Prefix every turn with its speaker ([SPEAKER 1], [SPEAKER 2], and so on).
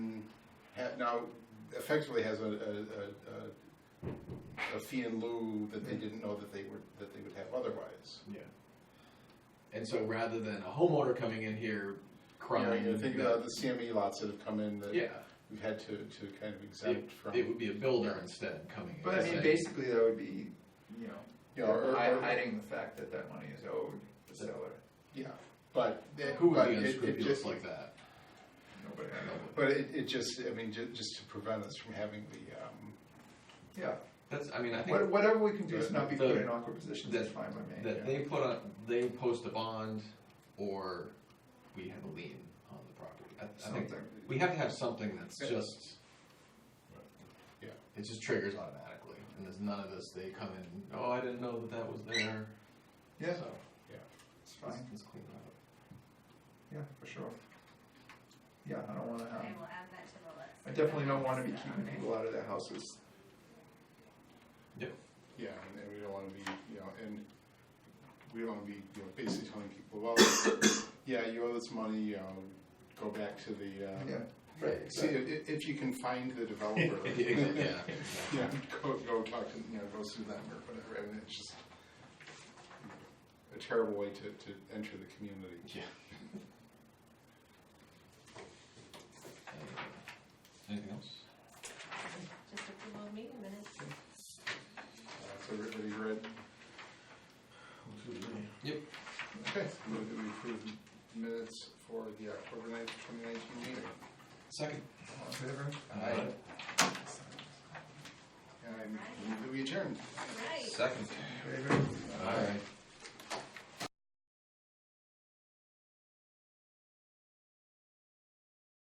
[SPEAKER 1] now effectively has a, a, a, a fee in lieu that they didn't know that they were, that they would have otherwise.
[SPEAKER 2] Yeah. And so rather than a homeowner coming in here
[SPEAKER 1] You know,
[SPEAKER 2] crying,
[SPEAKER 1] you think
[SPEAKER 2] that-
[SPEAKER 1] about the CME lots that have come in that
[SPEAKER 2] yeah,
[SPEAKER 1] we've had to, to kind of exempt from,
[SPEAKER 2] it
[SPEAKER 1] you
[SPEAKER 2] would be a builder instead coming in.
[SPEAKER 3] But I mean,
[SPEAKER 2] saying,
[SPEAKER 3] basically, that would be, you
[SPEAKER 1] know, or-
[SPEAKER 3] know, hi-
[SPEAKER 1] or-
[SPEAKER 3] hiding the fact that that money is owed the seller,
[SPEAKER 1] yeah, but. it-
[SPEAKER 2] Who would
[SPEAKER 1] but
[SPEAKER 2] be
[SPEAKER 1] it- it
[SPEAKER 2] unscrupulous
[SPEAKER 1] just-
[SPEAKER 2] like that?
[SPEAKER 3] nobody,
[SPEAKER 1] But it, it just, I mean, ju- just to prevent us from having the, um,
[SPEAKER 3] yeah,
[SPEAKER 2] That's, I mean, I think
[SPEAKER 3] What- whatever we can do to not be put
[SPEAKER 2] The-
[SPEAKER 3] in awkward positions
[SPEAKER 2] that-
[SPEAKER 3] is fine by me,
[SPEAKER 2] that
[SPEAKER 3] yeah.
[SPEAKER 2] they put on, they post a bond or we have a lien on the property. I, I think
[SPEAKER 3] Something,
[SPEAKER 2] we have to have something that's
[SPEAKER 1] Yeah.
[SPEAKER 2] just.
[SPEAKER 1] Yeah.
[SPEAKER 2] It just triggers automatically, and there's none of this, they come in, oh, I didn't know that that was there.
[SPEAKER 3] yeah,
[SPEAKER 2] So,
[SPEAKER 3] it's
[SPEAKER 2] let's,
[SPEAKER 3] fine,
[SPEAKER 2] let's clean that
[SPEAKER 3] yeah, for sure. Yeah, I don't wanna have,
[SPEAKER 4] I will add that to the list.
[SPEAKER 3] I definitely don't wanna be keeping people out of their houses,
[SPEAKER 1] yeah, and- and we don't wanna be, you know, and we don't wanna be, you know, basically telling people, well, yeah, you owe this money, you know, go back to the, uh,
[SPEAKER 3] yeah.
[SPEAKER 2] Right,
[SPEAKER 1] See, if, if you can find the developer.
[SPEAKER 2] up. Yeah,
[SPEAKER 1] Yeah, go, go talk to, you know, go sue them or whatever, I mean, it's just a terrible way to, to enter the community.
[SPEAKER 2] yeah. Anything else?
[SPEAKER 4] Just approval of meeting minutes.
[SPEAKER 1] Uh, So everybody read?
[SPEAKER 2] Yep.
[SPEAKER 1] Okay, move that we approve minutes for the October ninth, twenty nineteen meeting.
[SPEAKER 2] Second.
[SPEAKER 3] All in favor?
[SPEAKER 2] Aye.
[SPEAKER 1] And I move that we adjourned.
[SPEAKER 4] Right.
[SPEAKER 2] Second.
[SPEAKER 3] Favor?
[SPEAKER 2] All right.